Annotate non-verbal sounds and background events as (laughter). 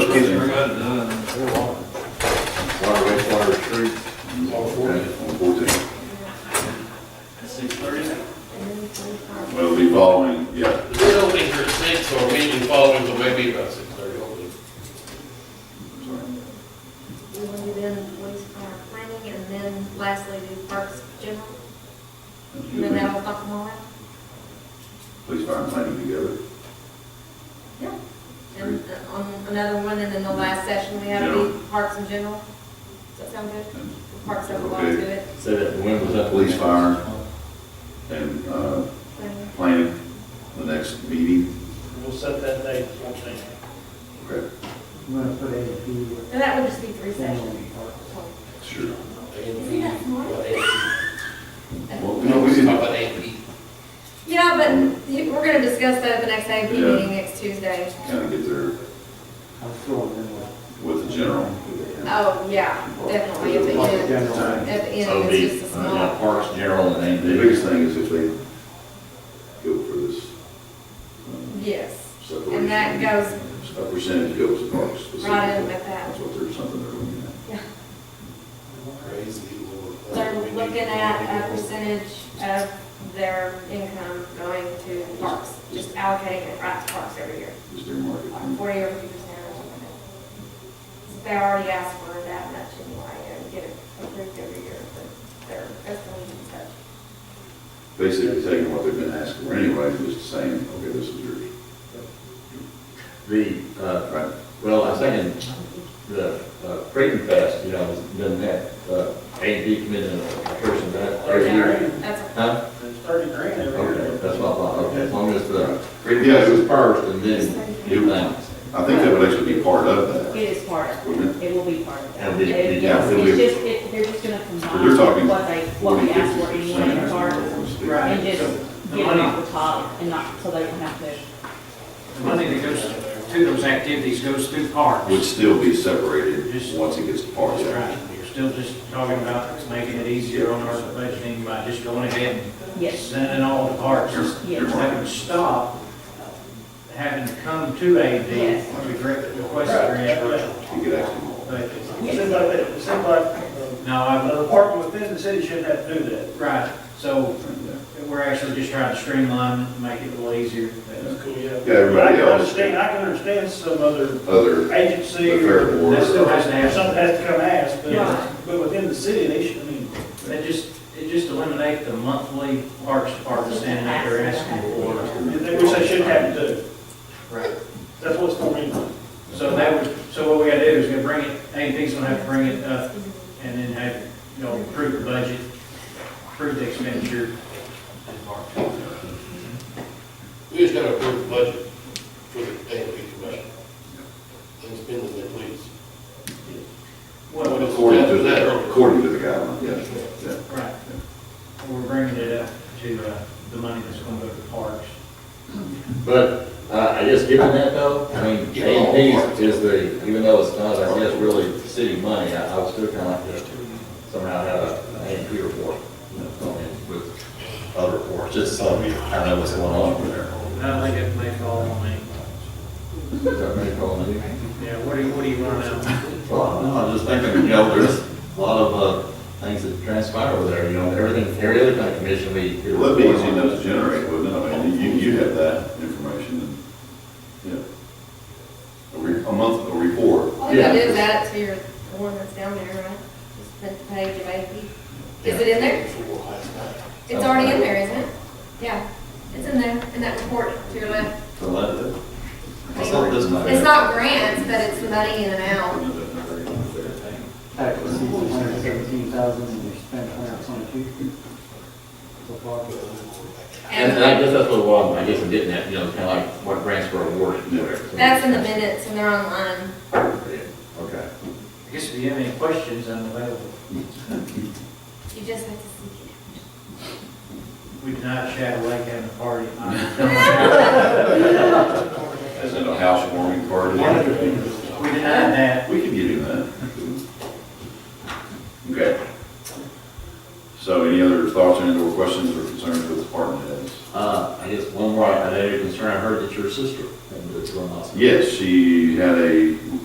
got it done. Water, wastewater, street. On fourteen. At six thirty? We'll be following, yeah, The bid opening for six, so our meeting following will maybe about six thirty, hopefully. We want to do then police power planning, and then lastly do parks general, and then that'll talk them all out. police fire and planning together. Yeah. And uh, on another one, and then the last session, we have General. the parks in general. Does that sound good? And Parks have a lot to it. Say that, when was that? Police, fire, and, uh, planning, the next meeting, We'll set that date, fourteen. okay, I'm gonna put AFP with And that would just be three general sessions. parks. sure. Is he that smart? Well, we No, we didn't- didn't talk about AP. Yeah, but you- we're gonna discuss that at the next AP Yeah. meeting next Tuesday. kind of get there I'm still in with with the general. Oh, yeah, definitely, at the parks end, general. at the So end, it's the, just a uh, yeah, small. Parks General and The AMD. biggest thing is if they go for this um, Yes, separation. and that goes A percentage goes to parks specifically. right in with that. That's what there's something they're looking at. Crazy Lord. They're looking at a percentage of their income going to parks, just allocating it right to parks every year, Is their market. like forty or fifty percent or something. like that. They already asked for that much anyway, and get it approved every year, but they're, that's the leading touch. Basically taking what they've been asking for anyway, just saying, okay, this is yours. The, uh, Right. well, I was thinking, the, uh, Freedom Fest, you know, has done that, uh, AMD committed a person that every year. That's, Huh? There's thirty grand Okay, that's what I thought, okay, as long as the Freedom Yeah, it Fest was- is first and then you think. I think that would actually be part of that. It is part of Wouldn't it. It will be part of that. And we- we- It- yeah, Yes, we- it's just, it, they're just gonna We're combine talking what they, what we asked for anyway in the park Right. and just get it off the top and not, so they don't have to. The money that goes to those activities goes through parks. Would still be separated once it gets to parks. Right, you're still just talking about making it easier on our budgeting by just going ahead and Yes, sending all the parks. Your- your So That would market. stop having to come to AD Yes. to regret- request for reimbursement. You could actually, But yes. um, No, I'm. The park within the city shouldn't have to do that. Right, so we're actually just trying to streamline, it, make it a little easier. yeah, everybody else, I can understand some other other, the agency or fair board. That still has to have. something has to come ask, Yeah. but, but within the city, they should, I mean, It just, it just eliminate the monthly parks department standing out there asking for it. they- which they should have to do. Right. That's what's going on. So that would, so what we gotta do is we bring it, AMP's gonna have to bring it up and then have, you know, approve the budget, approve the expenditure and parks. We just gotta approve the budget for the AP commission. And spend it, they please. Well, According to, the- according to the guideline, yes, yeah. right. We're bringing it up to, uh, the money that's gonna go to parks. But, uh, I guess given that though, I mean, Yeah, all AMD parts. is the, even though it's not, I guess, really city money, I, I would still kind of like to somehow have a, an AMP report. you know, and With other reports, just so we kind of know what's going on over there. I think it makes all the money. Is that what you call it? Yeah, what do you, what do you want to know? Well, no, I'm just thinking, you know, there's a lot of, uh, things that transpire over there, you know, everything, every other kind of commission we. It would be easy enough to generate, wouldn't it? I mean, you, you have that information and, yeah. A re, a month, a report. all you gotta do is Yeah. add it to your one that's down there, right? Just print the page of AP. Is it in there? It's already in there, isn't it? Yeah, it's in there, in that report to your left. To let it. What's up this time? It's not grants, but it's money in and out. Well, Tax receipts one hundred seventeen thousand and you spent one hundred twenty-two. So far, And and I uh, guess that's what it was, I guess it didn't have, you know, kind of like what grants were awarded. Yeah. That's in the minutes and they're online. Okay. I guess if you have any questions, I'm available. You just have to see it. We denied Shadow Lake having a party. As in a housewarming party. (laughs) We denied that. We can give you that. Okay. So any other thoughts and or questions or concerns with department heads? Uh, I guess one more, I had a concern, I heard that your sister had been to a hospital. Yes, she had a